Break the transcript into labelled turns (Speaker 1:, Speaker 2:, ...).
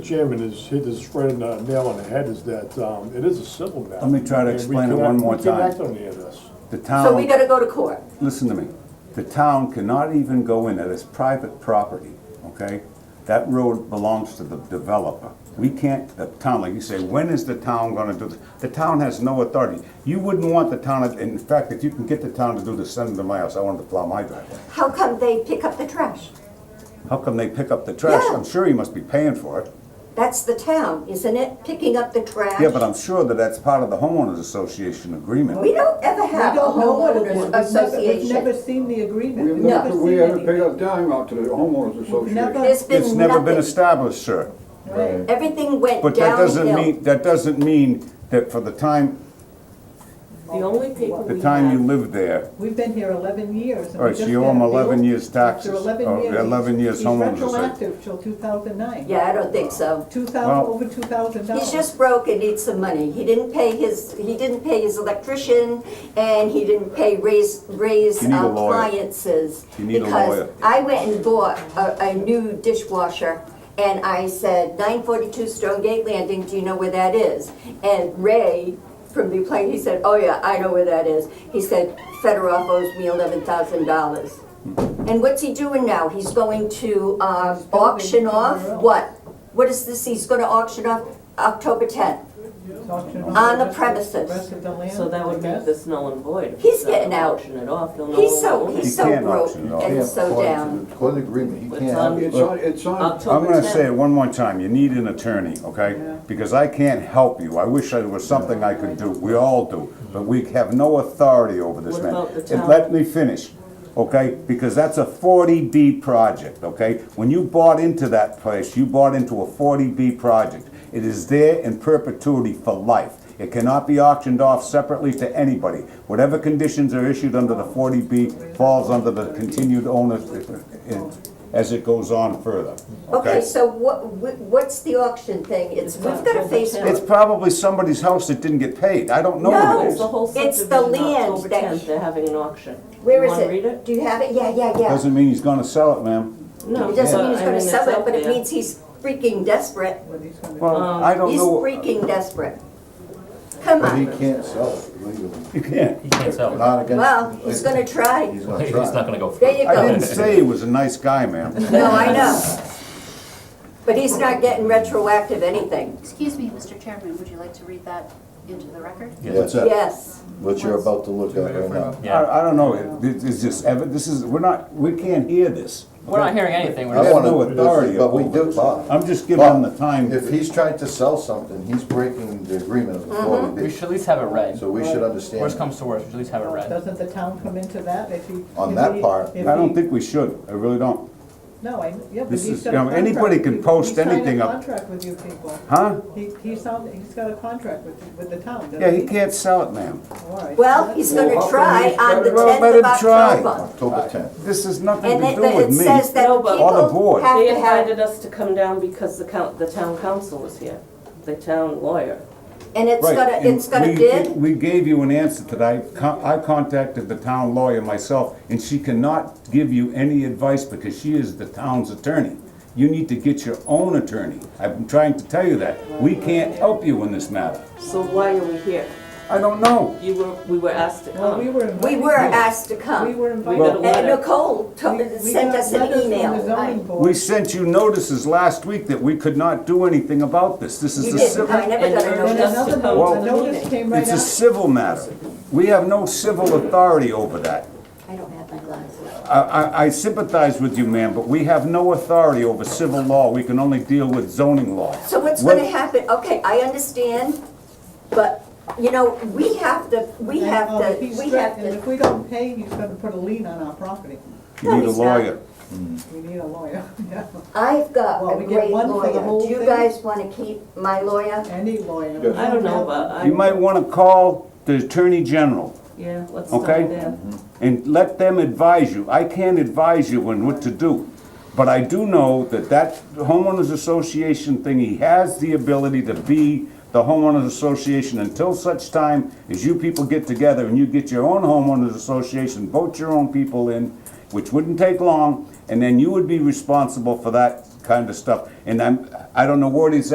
Speaker 1: Chairman has hit his friend uh, nail on the head is that um, it is a civil matter.
Speaker 2: Let me try
Speaker 1: And
Speaker 2: to
Speaker 1: we
Speaker 2: explain it
Speaker 1: cannot-
Speaker 2: one more
Speaker 1: We
Speaker 2: time.
Speaker 1: can't act on any of this.
Speaker 2: The
Speaker 3: So
Speaker 2: town,
Speaker 3: we gotta go to court.
Speaker 2: listen to me, the town cannot even go in, that is private property, okay? That road belongs to the developer. We can't, the town, like you say, when is the town gonna do this? The town has no authority. You wouldn't want the town, in fact, if you can get the town to do this, send them to my house, I want them to plow my driveway.
Speaker 3: How come they pick up the trash?
Speaker 2: How come they pick up the trash?
Speaker 3: Yeah.
Speaker 2: I'm sure you must be paying for it.
Speaker 3: That's the town, isn't it? Picking up the trash?
Speaker 2: Yeah, but I'm sure that that's part of the homeowners association agreement.
Speaker 3: We don't ever have
Speaker 4: We
Speaker 3: a
Speaker 4: don't know what it was.
Speaker 3: homeowners
Speaker 4: We've never- We've never
Speaker 3: association.
Speaker 4: seen the agreement.
Speaker 5: We've
Speaker 4: We've
Speaker 3: never-
Speaker 5: never,
Speaker 4: never
Speaker 5: we
Speaker 4: seen
Speaker 5: haven't paid
Speaker 4: anything.
Speaker 5: a dime out to the homeowners association.
Speaker 4: never-
Speaker 3: There's
Speaker 2: It's
Speaker 3: been
Speaker 2: never been
Speaker 3: nothing.
Speaker 2: established, sir.
Speaker 4: Right.
Speaker 3: Everything went
Speaker 2: But that doesn't mean,
Speaker 3: downhill.
Speaker 2: that doesn't mean that for the time,
Speaker 6: The only paper
Speaker 2: the
Speaker 6: we
Speaker 2: time you
Speaker 6: have,
Speaker 2: lived there,
Speaker 4: We've been here eleven years. and we
Speaker 2: All right, so
Speaker 4: just
Speaker 2: you owe
Speaker 4: got a
Speaker 2: them
Speaker 4: bill
Speaker 2: 11 years
Speaker 4: after
Speaker 2: taxes, or
Speaker 4: Eleven years.
Speaker 2: 11 years
Speaker 4: He's
Speaker 2: homeowners
Speaker 4: retroactive till two thousand nine.
Speaker 3: Yeah, I don't think so.
Speaker 4: Two thousand,
Speaker 2: Well-
Speaker 4: over two thousand dollars.
Speaker 3: He's just broke and needs some money. He didn't pay his, he didn't pay his electrician, and he didn't pay raise, raise
Speaker 2: You need a
Speaker 3: uh,
Speaker 2: lawyer.
Speaker 3: appliances.
Speaker 2: You need a lawyer.
Speaker 3: Because I went and bought a, a new dishwasher, and I said, nine forty-two Stone Gate Landing, do you know where that is? And Ray from the plane, he said, oh yeah, I know where that is. He said, Federoff owes me eleven thousand dollars.
Speaker 2: Hmm.
Speaker 3: And what's he doing now? He's going to uh, auction off
Speaker 4: somewhere else.
Speaker 3: what? What is this? He's going to auction off
Speaker 7: October 10th.
Speaker 4: on
Speaker 7: the premises.
Speaker 4: Rest of the land.
Speaker 6: so that would
Speaker 4: I
Speaker 6: make
Speaker 4: guess.
Speaker 6: this null and void. If
Speaker 7: He's
Speaker 6: we don't
Speaker 7: getting out.
Speaker 6: Auction it off, he'll no
Speaker 7: He's so,
Speaker 6: longer own it.
Speaker 2: He
Speaker 7: he's so
Speaker 2: can't
Speaker 7: broke
Speaker 2: auction it off.
Speaker 7: and so down.
Speaker 8: According to the agreement, you
Speaker 6: It's
Speaker 8: can't.
Speaker 6: on-
Speaker 5: It's on, it's on,
Speaker 2: I'm
Speaker 6: October
Speaker 2: gonna
Speaker 6: 10th.
Speaker 2: say it one more time, you need an attorney, okay? Because I can't help you, I wish there was something I could do, we all do, but we have no authority over this
Speaker 6: What
Speaker 2: man.
Speaker 6: about the
Speaker 2: And
Speaker 6: town?
Speaker 2: Let me finish, okay? Because that's a 40B project, okay? When you bought into that place, you bought into a 40B project. It is there in perpetuity for life. It cannot be auctioned off separately to anybody. Whatever conditions are issued under the 40B falls under the continued owners as it goes on further,
Speaker 3: Okay, so what, wh- what's the auction thing? It's,
Speaker 6: It's
Speaker 3: we've got a
Speaker 6: October
Speaker 3: Facebook.
Speaker 2: It's probably somebody's house that didn't get paid. I don't know
Speaker 3: No.
Speaker 2: what it
Speaker 6: It's
Speaker 2: is.
Speaker 6: the whole
Speaker 3: It's the
Speaker 6: subdivision,
Speaker 3: land
Speaker 6: October
Speaker 3: that-
Speaker 6: tenth, they're having an auction.
Speaker 3: Where
Speaker 6: You
Speaker 3: is
Speaker 6: wanna read
Speaker 3: it? Do you have it? Yeah, yeah, yeah.
Speaker 2: Doesn't mean he's gonna sell it, ma'am.
Speaker 6: No.
Speaker 3: It doesn't
Speaker 6: but
Speaker 3: mean he's
Speaker 6: I
Speaker 3: gonna
Speaker 6: mean, it's
Speaker 3: sell it,
Speaker 6: out
Speaker 3: but it
Speaker 6: there.
Speaker 3: means he's freaking desperate.
Speaker 4: What he's gonna do.
Speaker 2: Well, I don't
Speaker 3: Um, He's
Speaker 2: know.
Speaker 3: freaking desperate. Come
Speaker 8: But he
Speaker 3: on.
Speaker 8: can't sell it legally.
Speaker 2: You can't.
Speaker 9: He can't sell it.
Speaker 8: Not against.
Speaker 3: Well, he's gonna try.
Speaker 8: He's
Speaker 9: He's
Speaker 8: gonna try.
Speaker 9: not gonna go for
Speaker 3: There
Speaker 9: it.
Speaker 3: you
Speaker 2: I didn't
Speaker 3: go.
Speaker 2: say he was a nice guy, ma'am.
Speaker 3: No, I know. But he's not getting retroactive anything.
Speaker 10: Excuse me, Mr. Chairman, would you like to read that into the record?
Speaker 8: What's that?
Speaker 3: Yes.
Speaker 8: What you're about to look at right now.
Speaker 9: Yeah.
Speaker 2: I, I don't know. It- This is just, evi- this is, we're not, we can't hear this.
Speaker 9: We're not hearing anything. We're
Speaker 2: I
Speaker 9: just,
Speaker 2: have
Speaker 8: wanna-
Speaker 2: no authority
Speaker 8: But we
Speaker 2: over
Speaker 8: do,
Speaker 2: this.
Speaker 8: Bob.
Speaker 2: I'm just giving him the
Speaker 8: Bob, If
Speaker 2: time.
Speaker 8: he's trying to sell something, he's breaking the agreement of the forty
Speaker 9: we
Speaker 8: B.
Speaker 9: should at least have it read.
Speaker 8: So we should understand.
Speaker 9: Worst comes to worst, we should at least have it read.
Speaker 4: Doesn't the town come into that if he?
Speaker 8: On
Speaker 4: if
Speaker 8: that
Speaker 4: he-
Speaker 8: part,
Speaker 4: if
Speaker 2: I don't
Speaker 4: he-
Speaker 2: think we should. I really don't.
Speaker 4: No, I, yeah, but
Speaker 2: This
Speaker 4: he's
Speaker 2: is-
Speaker 4: got a
Speaker 2: you know,
Speaker 4: contract.
Speaker 2: anybody can post anything up.
Speaker 4: He signed a contract with you people.
Speaker 2: Huh?
Speaker 4: He, he signed, he's got a contract with, with the town, doesn't he?
Speaker 2: Yeah, he can't sell it, ma'am.
Speaker 4: All right.
Speaker 3: Well, he's gonna try on the
Speaker 2: Well, let
Speaker 3: tenth
Speaker 2: him
Speaker 3: of
Speaker 2: try.
Speaker 3: October.
Speaker 8: October tenth.
Speaker 2: This has nothing
Speaker 3: And
Speaker 2: to
Speaker 3: it,
Speaker 2: do with
Speaker 3: it
Speaker 2: me.
Speaker 3: says that
Speaker 6: No, but- Or
Speaker 2: the
Speaker 3: people
Speaker 2: board.
Speaker 3: have
Speaker 6: They
Speaker 3: to have
Speaker 6: invited us to come down because the coun, the town council was here, the town lawyer.
Speaker 3: And it's
Speaker 2: Right,
Speaker 3: gonna,
Speaker 2: and
Speaker 3: it's gonna
Speaker 2: we-
Speaker 3: bid,
Speaker 2: We gave you an answer today. Con- I contacted the town lawyer myself, and she cannot give you any advice because she is the town's attorney. You need to get your own attorney. I've been trying to tell you that. We can't help you in this matter.
Speaker 6: So why are we here?
Speaker 2: I don't know.
Speaker 6: You were, we were asked to
Speaker 4: Well, we
Speaker 6: come.
Speaker 4: were
Speaker 3: we
Speaker 4: invited.
Speaker 3: were asked to
Speaker 4: We
Speaker 3: come.
Speaker 4: were
Speaker 6: got a
Speaker 4: invited.
Speaker 3: And
Speaker 6: letter.
Speaker 3: Nicole to-
Speaker 4: We- we
Speaker 3: sent
Speaker 4: got
Speaker 3: us an
Speaker 4: letters from the
Speaker 3: email.
Speaker 4: zoning
Speaker 3: I-
Speaker 4: board.
Speaker 2: We sent you notices last week that we could not do anything about this. This is
Speaker 3: You
Speaker 2: a
Speaker 3: didn't,
Speaker 2: civil,
Speaker 3: I never
Speaker 6: And
Speaker 3: got
Speaker 6: you
Speaker 3: a
Speaker 6: were
Speaker 4: And
Speaker 3: notice.
Speaker 6: just
Speaker 4: another
Speaker 6: to come
Speaker 2: Well,
Speaker 4: note,
Speaker 6: to
Speaker 4: a
Speaker 6: the
Speaker 4: notice
Speaker 6: meeting.
Speaker 4: came right
Speaker 2: it's a
Speaker 4: after.
Speaker 2: civil matter. We have no civil authority over that.
Speaker 7: I don't have my glasses.
Speaker 2: I- I, I sympathize with you, ma'am, but we have no authority over civil law. We can only deal with zoning law.
Speaker 3: So what's
Speaker 2: What-
Speaker 3: gonna happen, okay, I understand, but, you know, we have to, we
Speaker 4: And,
Speaker 3: have
Speaker 4: um,
Speaker 3: to,
Speaker 4: if he's
Speaker 3: we have
Speaker 4: threatened- If
Speaker 3: to.
Speaker 4: we don't pay, he's gonna put a lien on our property.
Speaker 2: You need a
Speaker 3: he's not.
Speaker 2: lawyer.
Speaker 4: We need a lawyer, yeah,
Speaker 3: I've got
Speaker 4: Well,
Speaker 3: a
Speaker 4: we get
Speaker 3: great
Speaker 4: one for the
Speaker 3: lawyer.
Speaker 4: whole
Speaker 3: Do you
Speaker 4: thing?
Speaker 3: guys wanna keep my lawyer?
Speaker 4: any lawyer.
Speaker 5: Yes.
Speaker 6: I don't know, but I.
Speaker 2: You might want to call the Attorney General
Speaker 6: Yeah, let's start
Speaker 2: Okay.
Speaker 6: there.
Speaker 2: and let them advise you. I can't advise you on what to do. But I do know that that homeowners association thing, he has the ability to be the homeowners association until such time as you people get together and you get your own homeowners association, vote your own people in, which wouldn't take long, and then you would be responsible for that kind of stuff. And I'm, I don't know where these